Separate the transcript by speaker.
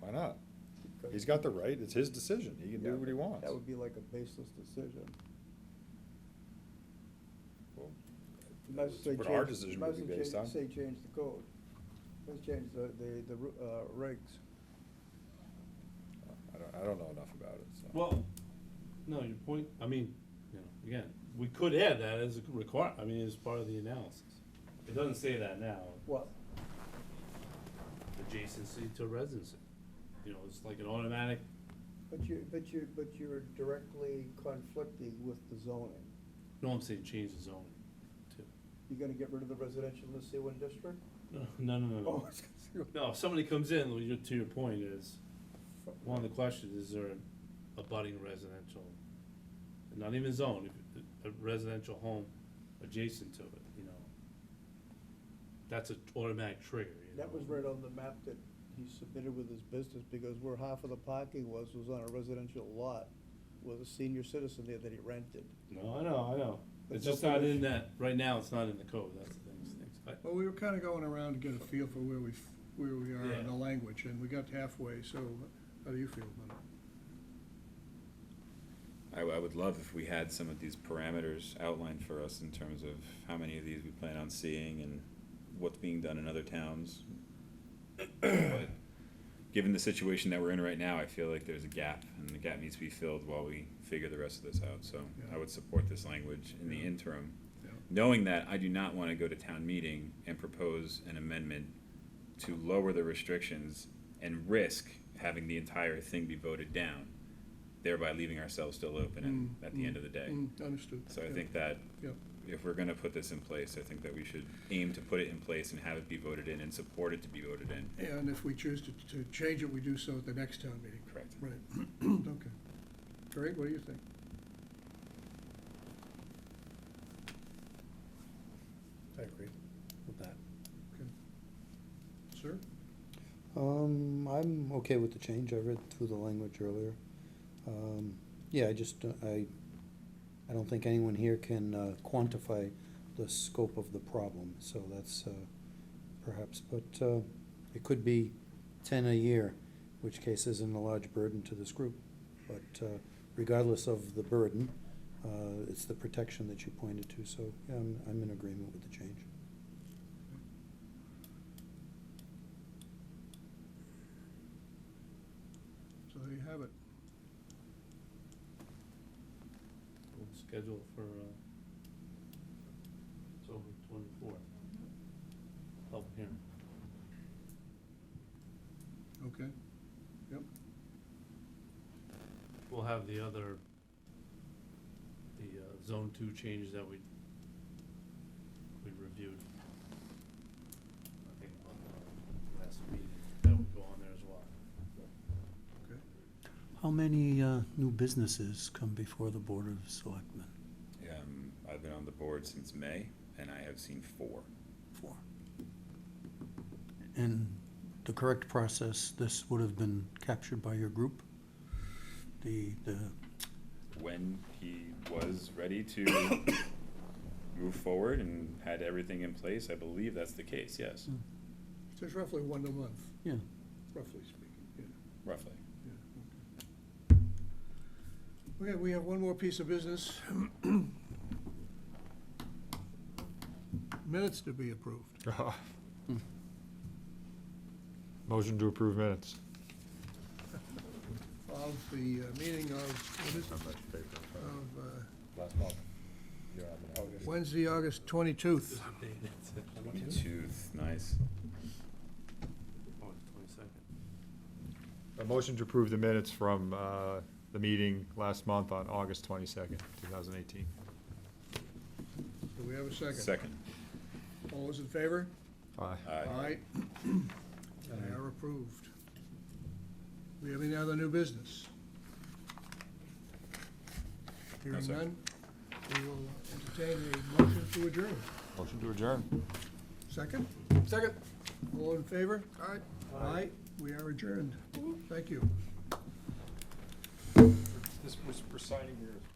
Speaker 1: Why not? He's got the right, it's his decision, he can
Speaker 2: Yeah,
Speaker 1: do what he
Speaker 2: but
Speaker 1: wants.
Speaker 2: That would be like a baseless decision.
Speaker 1: Well,
Speaker 2: You might as
Speaker 1: that's
Speaker 2: well say
Speaker 1: What our
Speaker 2: change-
Speaker 1: decision
Speaker 2: might as
Speaker 1: would be
Speaker 2: well
Speaker 1: based
Speaker 2: change-
Speaker 1: on.
Speaker 2: Say change the code. Let's change the, the, the ru- uh, regs.
Speaker 1: I don't, I don't know enough about it, so.
Speaker 3: Well, no, your point, I mean, you know, again, we could add that as a require, I mean, as part of the analysis. It doesn't say that now,
Speaker 2: What?
Speaker 3: adjacency to residency. You know, it's like an automatic,
Speaker 2: But you, but you, but you're directly conflicting with the zoning.
Speaker 3: no, I'm saying change the zoning too.
Speaker 2: You're gonna get rid of the residential in the C one district?
Speaker 3: No, no, no,
Speaker 2: Oh,
Speaker 3: no.
Speaker 2: I was gonna say, what
Speaker 3: No, if somebody comes in, well, your- to your point is,
Speaker 2: the fuck?
Speaker 3: one of the questions, is there an abutting residential? Not even zone, if- a residential home adjacent to it, you know? That's an automatic trigger, you know?
Speaker 2: That was right on the map that he submitted with his business, because where half of the parking was, was on a residential lot with a senior citizen there that he rented.
Speaker 3: No, I know, I know.
Speaker 2: But
Speaker 3: It's just
Speaker 2: no
Speaker 3: not in
Speaker 2: condition.
Speaker 3: that, right now, it's not in the code, that's the thing, Sticks. I-
Speaker 4: Well, we were kind of going around to get a feel for where we, f- where we are
Speaker 3: Yeah.
Speaker 4: in the language, and we got halfway, so how do you feel about it?
Speaker 5: I, I would love if we had some of these parameters outlined for us in terms of how many of these we plan on seeing and what's being done in other towns. But Given the situation that we're in right now, I feel like there's a gap, and the gap needs to be filled while we figure the rest of this out, so I
Speaker 4: Yeah.
Speaker 5: would support this language in the
Speaker 4: Yeah.
Speaker 5: interim.
Speaker 4: Yeah.
Speaker 5: Knowing that, I do not wanna go to town meeting and propose an amendment to lower the restrictions and risk having the entire thing be voted down, thereby leaving ourselves still open and
Speaker 4: Mm,
Speaker 5: at the end of the day.
Speaker 4: Mm, Understood.
Speaker 5: So I
Speaker 4: Yeah.
Speaker 5: think that
Speaker 4: Yeah.
Speaker 5: if we're gonna put this in place, I think that we should aim to put it in place and have it be voted in and support it to be voted in.
Speaker 4: And if we choose to, to change it, we do so at the next town meeting.
Speaker 5: Correct.
Speaker 4: Right, okay. Greg, what do you think?
Speaker 3: I agree with that.
Speaker 4: Sir?
Speaker 6: Um, I'm okay with the change. I read through the language earlier. Um, yeah, I just, don't- I, I don't think anyone here can uh, quantify the scope of the problem, so that's, uh, perhaps, but, uh, it could be ten a year, which case isn't a large burden to this group. But, uh, regardless of the burden, uh, it's the protection that you pointed to, so, yeah, I'm, I'm in agreement with the change.
Speaker 4: So there you have it.
Speaker 3: We'll schedule for, uh, October twenty-fourth. Public hearing.
Speaker 4: Okay,
Speaker 3: We'll have the other, the, uh, zone two changes that we, we reviewed. I think on the last meeting, that would go on there as well.
Speaker 4: okay.
Speaker 6: How many, uh, new businesses come before the Board of Selectmen?
Speaker 5: Um, I've been on the board since May, and I have seen four.
Speaker 6: for. And the correct process, this would have been captured by your group? The, the,
Speaker 5: When he was ready to move forward and had everything in place, I believe that's the case, yes,
Speaker 4: So it's roughly one a month,
Speaker 6: yeah,
Speaker 4: roughly speaking, yeah.
Speaker 5: roughly.
Speaker 4: Yeah, Okay, Okay, we have one more piece of business. Minutes to be approved.
Speaker 7: Motion to approve minutes.
Speaker 4: of the uh, meeting of, what is it, of uh,
Speaker 1: Last month. Yeah, I mean, August.
Speaker 4: Wednesday, August 22nd.
Speaker 5: Oh, Tooth, nice.
Speaker 3: On the twenty-second.
Speaker 7: A motion to approve the minutes from uh, the meeting last month on August 22nd, 2018.
Speaker 4: Do we have a second?
Speaker 5: Second,
Speaker 4: All those in favor?
Speaker 7: Aye.
Speaker 5: aye.
Speaker 4: They are approved. Do we have any other new business? Hearing
Speaker 5: sir.
Speaker 4: none, we will entertain a motion to adjourn.
Speaker 7: Motion to adjourn.
Speaker 4: Second? Second. All in favor? Aye. Aye, we are adjourned. Thank you.
Speaker 7: This was presiding here.